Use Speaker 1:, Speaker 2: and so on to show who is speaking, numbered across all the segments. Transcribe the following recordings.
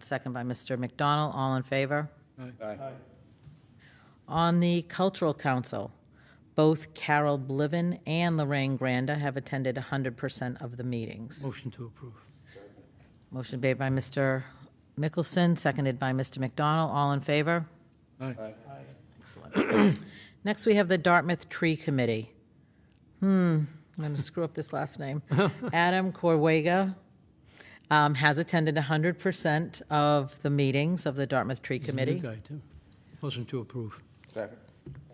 Speaker 1: Second by Mr. McDonald. All in favor? On the Cultural Council, both Carol Bliven and Lorraine Granda have attended 100% of the meetings.
Speaker 2: Motion to approve.
Speaker 1: Motion made by Mr. Mickelson, seconded by Mr. McDonald. All in favor?
Speaker 2: Aye.
Speaker 1: Next, we have the Dartmouth Tree Committee. Hmm, I'm going to screw up this last name. Adam Corwega um, has attended 100% of the meetings of the Dartmouth Tree Committee.
Speaker 2: New guy, too. Motion to approve.
Speaker 3: Second.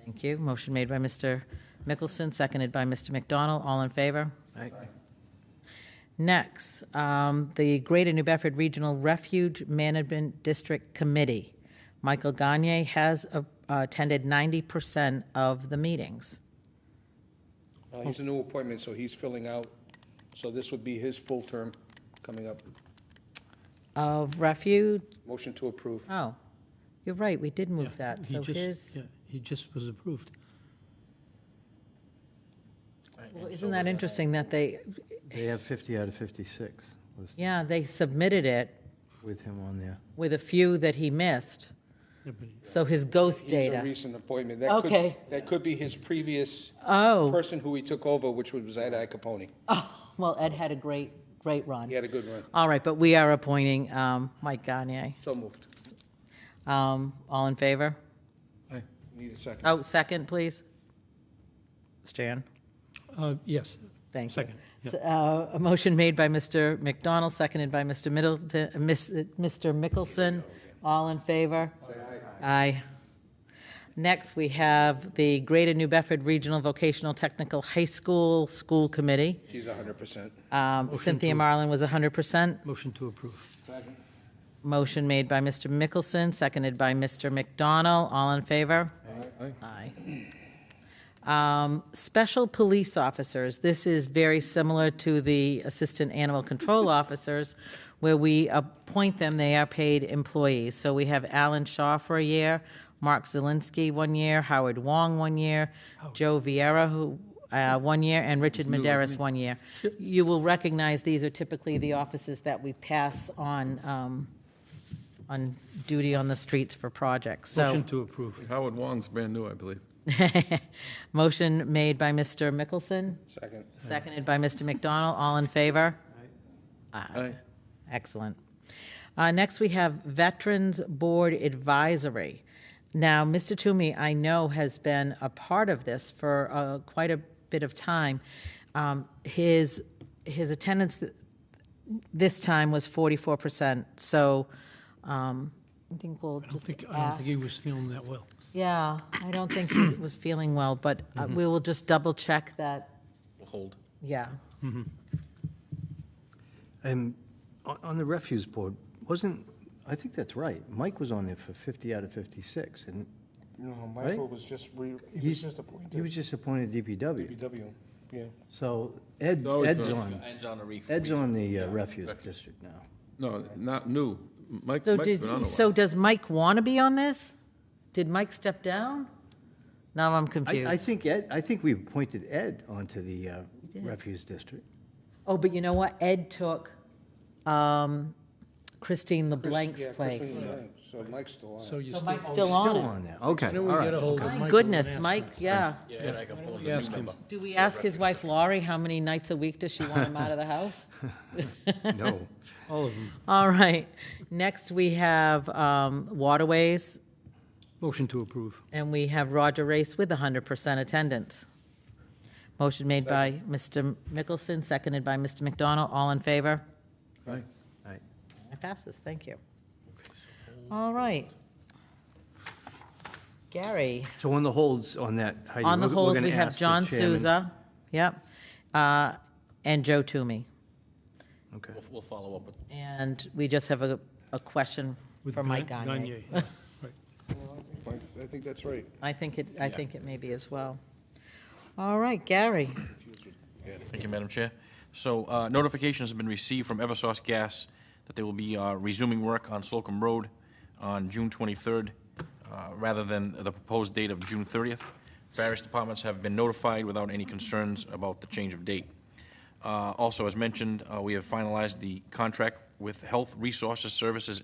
Speaker 1: Thank you. Motion made by Mr. Mickelson, seconded by Mr. McDonald. All in favor?
Speaker 2: Aye.
Speaker 1: Next, um, the Greater New Bedford Regional Refuge Management District Committee. Michael Gagne has uh, attended 90% of the meetings.
Speaker 3: Uh, He's a new appointment, so he's filling out, so this would be his full term coming up.
Speaker 1: Of refuge,
Speaker 3: Motion to approve.
Speaker 1: oh, you're right, we did move that.
Speaker 2: He
Speaker 1: So
Speaker 2: just-
Speaker 1: his,
Speaker 2: yeah, He just was approved.
Speaker 1: well, isn't that interesting that they,
Speaker 4: They have 50 out of 56 was
Speaker 1: yeah, they submitted it
Speaker 4: with him on there.
Speaker 1: with a few that he missed.
Speaker 2: Yeah, but he-
Speaker 1: So his ghost
Speaker 3: He's a
Speaker 1: data.
Speaker 3: recent appointment. That could-
Speaker 1: Okay.
Speaker 3: That could be his previous
Speaker 1: Oh.
Speaker 3: person who he took over, which was Ed Capone.
Speaker 1: Well, Ed had a great, great run.
Speaker 3: He had a good run.
Speaker 1: All right, but we are appointing um, Mike Gagne.
Speaker 3: So moved.
Speaker 1: Um, All in favor?
Speaker 3: Need a second.
Speaker 1: Oh, second, please. Stan?
Speaker 2: uh, Yes.
Speaker 1: Thank you.
Speaker 2: Second. yeah.
Speaker 1: S- uh, A motion made by Mr. McDonald, seconded by Mr. Middleton, uh, Miss- uh, Mr. Mickelson. All in favor? Aye. Next, we have the Greater New Bedford Regional Vocational Technical High School School Committee.
Speaker 3: He's 100%.
Speaker 1: Um, Cynthia Marlin was 100%.
Speaker 2: Motion to approve.
Speaker 3: Second.
Speaker 1: Motion made by Mr. Mickelson, seconded by Mr. McDonnell. All in favor? Aye. Um, Special police officers, this is very similar to the assistant animal control officers, where we appoint them, they are paid employees. So we have Alan Shaw for a year, Mark Zelinski one year, Howard Wong one year,
Speaker 2: Oh.
Speaker 1: Joe Vieira, who, uh, one year, and Richard Maderas one year. You will recognize these are typically the offices that we pass on, um, on duty on the streets for projects, so.
Speaker 2: Motion to approve.
Speaker 5: Howard Wong's brand new, I believe.
Speaker 1: Motion made by Mr. Mickelson,
Speaker 3: Second.
Speaker 1: seconded by Mr. McDonald. All in favor?
Speaker 5: Aye.
Speaker 1: Excellent. Uh, Next, we have Veterans Board Advisory. Now, Mr. Toomey, I know, has been a part of this for uh, quite a bit of time. Um, His, his attendance th- this time was 44%, so um, I think we'll
Speaker 2: I don't
Speaker 1: just
Speaker 2: think, I don't
Speaker 1: ask.
Speaker 2: think he was feeling that well.
Speaker 1: Yeah, I don't think he was feeling well, but uh,
Speaker 5: Mm-hmm.
Speaker 1: we will just double check that,
Speaker 5: Hold.
Speaker 1: yeah.
Speaker 4: And on on the refuse board, wasn't, I think that's right. Mike was on there for 50 out of 56, and
Speaker 3: No,
Speaker 4: Michael
Speaker 3: was just, he
Speaker 4: he's, he was just appointed DPW.
Speaker 3: BW, yeah.
Speaker 4: So Ed,
Speaker 5: always
Speaker 4: Ed's
Speaker 5: been-
Speaker 4: on,
Speaker 6: Ed's on the reef.
Speaker 4: Ed's on the uh, refuse district now.
Speaker 5: No, not new. Mike,
Speaker 1: So
Speaker 5: Mike's been on a
Speaker 1: does,
Speaker 5: while.
Speaker 1: so does Mike want to be on this? Did Mike step down? Now I'm
Speaker 4: I, I
Speaker 1: confused.
Speaker 4: think Ed, I think we appointed Ed onto the uh,
Speaker 1: did.
Speaker 4: refuse district.
Speaker 1: Oh, but you know what? Ed took um, Christine LeBlanc's
Speaker 3: Yeah, Christian
Speaker 1: place.
Speaker 3: Blank. So Mike's still on.
Speaker 2: So
Speaker 3: it.
Speaker 2: you
Speaker 1: So
Speaker 2: still.
Speaker 1: Mike's
Speaker 2: oh,
Speaker 1: still on
Speaker 4: Still
Speaker 1: it.
Speaker 4: on there, okay,
Speaker 2: Why don't
Speaker 4: all
Speaker 2: we get
Speaker 4: right.
Speaker 2: a hold of Michael
Speaker 1: My
Speaker 2: and
Speaker 1: goodness,
Speaker 2: ask him?
Speaker 1: Mike, yeah.
Speaker 6: Yeah, and I can pull the
Speaker 2: Ask
Speaker 6: reef
Speaker 2: him.
Speaker 6: up.
Speaker 1: Do we ask his wife Laurie how many nights a week does she want him out of the house?
Speaker 4: No.
Speaker 2: All of them.
Speaker 1: All right. Next, we have um, Waterways,
Speaker 2: Motion to approve.
Speaker 1: and we have Roger Race with 100% attendance. Motion made by Mr. Mickelson, seconded by Mr. McDonald. All in favor?
Speaker 5: Aye.
Speaker 4: All right.
Speaker 1: I pass this, thank you. All right. Gary,
Speaker 4: So on the holds on that, Heidi,
Speaker 1: on the
Speaker 4: we're- we're
Speaker 1: holds,
Speaker 4: gonna
Speaker 1: we have
Speaker 4: ask the
Speaker 1: John
Speaker 4: chairman-
Speaker 1: Souza, yep, uh, and Joe Toomey.
Speaker 4: Okay.
Speaker 6: We'll, we'll follow up with
Speaker 1: And we just have a, a question
Speaker 2: With
Speaker 1: for Mike
Speaker 2: Ga-
Speaker 1: Gagne.
Speaker 2: yeah, right.
Speaker 3: Mike, I think that's right.
Speaker 1: I think it, I think it may be as well. All right, Gary.
Speaker 6: Thank you, Madam Chair. So uh, notifications have been received from Eversource Gas that they will be uh, resuming work on Slocum Road on June 23rd, uh, rather than the proposed date of June 30th. Various departments have been notified without any concerns about the change of date. Uh, Also, as mentioned, uh, we have finalized the contract with Health Resources Services